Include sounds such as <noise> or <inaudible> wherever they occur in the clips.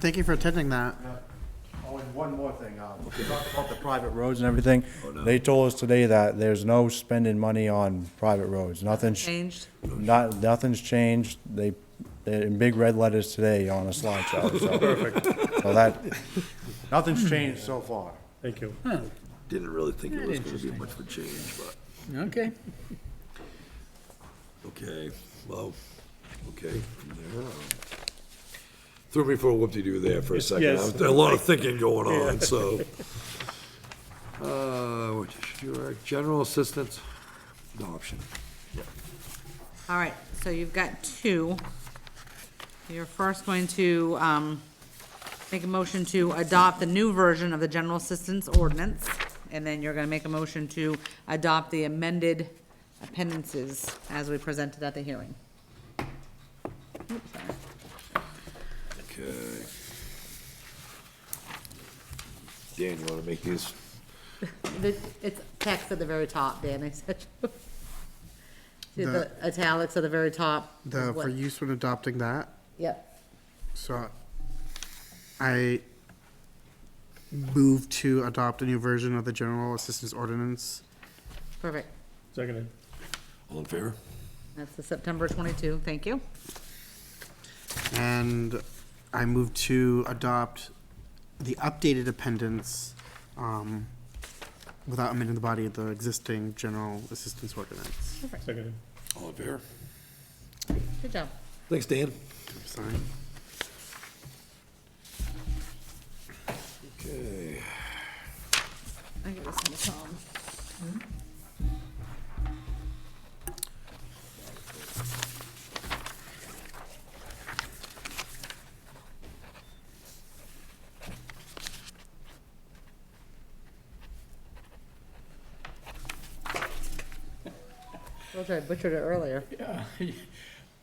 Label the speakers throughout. Speaker 1: Thank you for attending that.
Speaker 2: Oh, and one more thing, um, we talked about the private roads and everything. They told us today that there's no spending money on private roads, nothing's,
Speaker 3: Changed.
Speaker 2: not, nothing's changed. They, they're in big red letters today on a slideshow, so. Perfect. So that, nothing's changed so far.
Speaker 4: Thank you.
Speaker 5: Didn't really think it was gonna be much of a change, but,
Speaker 1: Okay.
Speaker 5: okay, well, okay, from there. um, Threw me for a whoop-de-doo there for a second.
Speaker 4: yes.
Speaker 5: There A lot of thinking going
Speaker 4: <laughs>
Speaker 5: on, so. Uh, what should you, our general assistance adoption.
Speaker 3: All right, so you've got two. You're first going to, um, make a motion to adopt the new version of the general assistance ordinance, and then you're gonna make a motion to adopt the amended appendices as we presented at the hearing.
Speaker 5: Okay. Dan, you wanna make these?
Speaker 3: The- It's text at the very top, Dan, I said. <laughs> See the italics at the very top?
Speaker 1: The,
Speaker 3: What-
Speaker 1: for use when adopting that,
Speaker 3: Yep,
Speaker 1: so I move to adopt a new version of the General Assistance Ordinance.
Speaker 3: perfect.
Speaker 4: Seconded.
Speaker 5: All in favor?
Speaker 3: That's the September twenty-two, thank you.
Speaker 1: And I move to adopt the updated appendix, um, without amending the body of the existing General Assistance Ordinance.
Speaker 4: Seconded.
Speaker 5: All in favor?
Speaker 3: Good job.
Speaker 5: Thanks, Dan.
Speaker 1: Sorry.
Speaker 5: Okay.
Speaker 3: I give this one to Tom. Told you I butchered it earlier.
Speaker 6: Uh, <laughs>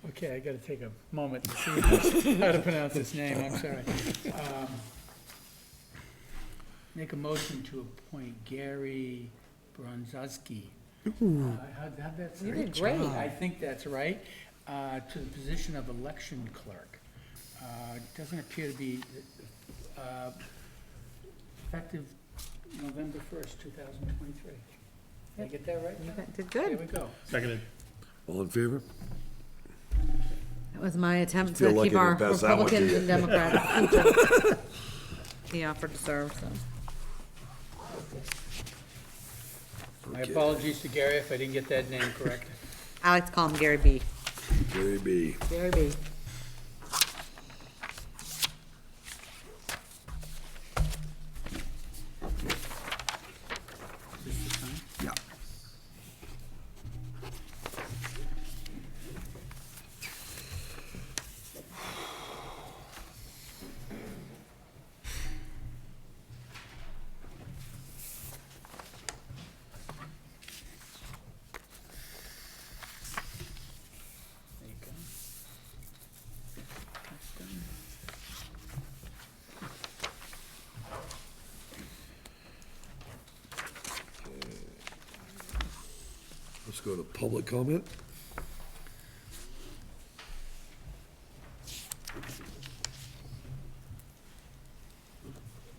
Speaker 6: Okay, I gotta take a moment to see how to pronounce his name, I'm sorry. Um, Make a motion to appoint Gary Bronzowski. How'd how'd that sound?
Speaker 3: You did great.
Speaker 6: I think that's right, uh, to the position of election clerk. Uh, Doesn't appear to be uh, effective November 1st, 2023. Did I get that right?
Speaker 3: You
Speaker 6: There
Speaker 3: Did good.
Speaker 6: we go.
Speaker 4: Seconded.
Speaker 5: All in favor?
Speaker 3: That was my attempt
Speaker 5: Feel
Speaker 3: to
Speaker 5: lucky
Speaker 3: keep
Speaker 5: to
Speaker 3: our
Speaker 5: pass that one to
Speaker 3: Republicans
Speaker 5: you.
Speaker 3: and Democrats.
Speaker 5: <laughs>
Speaker 3: <laughs> He offered to serve, so.
Speaker 6: My
Speaker 5: Okay.
Speaker 6: apologies to Gary if I didn't get that name correct.
Speaker 3: I like to call him Gary B.
Speaker 5: Gary B.
Speaker 3: Gary B.
Speaker 5: Yeah.
Speaker 6: There you go. That's done.
Speaker 5: Let's go to public comment.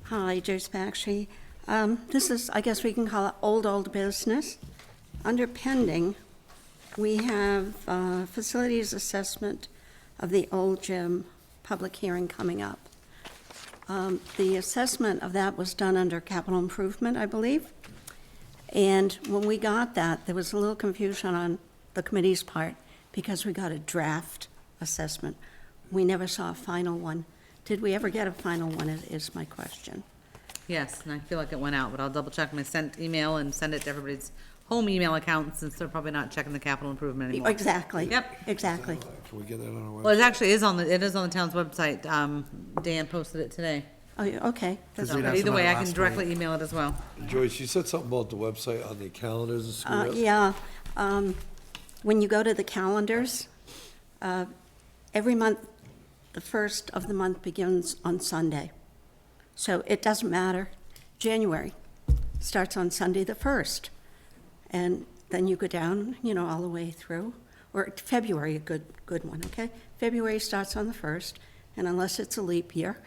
Speaker 7: Hi, Joyce Bakshi. Um, This is, I guess we can call it old, old business. Under pending, we have uh, facilities assessment of the old gym public hearing coming up. Um, The assessment of that was done under capital improvement, I believe. And when we got that, there was a little confusion on the committee's part because we got a draft assessment. We never saw a final one. Did we ever get a final one is- is my question.
Speaker 3: Yes, and I feel like it went out, but I'll double check my sent email and send it to everybody's home email account since they're probably not checking the capital improvement anymore.
Speaker 7: Exactly.
Speaker 3: Yep.
Speaker 7: Exactly.
Speaker 5: Uh, Can we get that on our
Speaker 3: Well,
Speaker 5: website?
Speaker 3: it actually is on the, it is on the town's website. Um, Dan posted it today.
Speaker 7: Oh, yeah, Okay.
Speaker 1: Because
Speaker 3: So
Speaker 1: we'd asked
Speaker 3: Either
Speaker 1: about it
Speaker 3: way, I can
Speaker 1: last
Speaker 3: directly email it as well.
Speaker 5: Joyce, you said something about the website on the calendars and
Speaker 7: Uh,
Speaker 5: screw
Speaker 7: Yeah, um, when you go to the calendars, uh, every month, the first of the month begins on Sunday. So it doesn't matter. January starts on Sunday, the first. And then you go down, you know, all the way through, or February, a good, good one, okay? February starts on the first, and unless it's a leap year,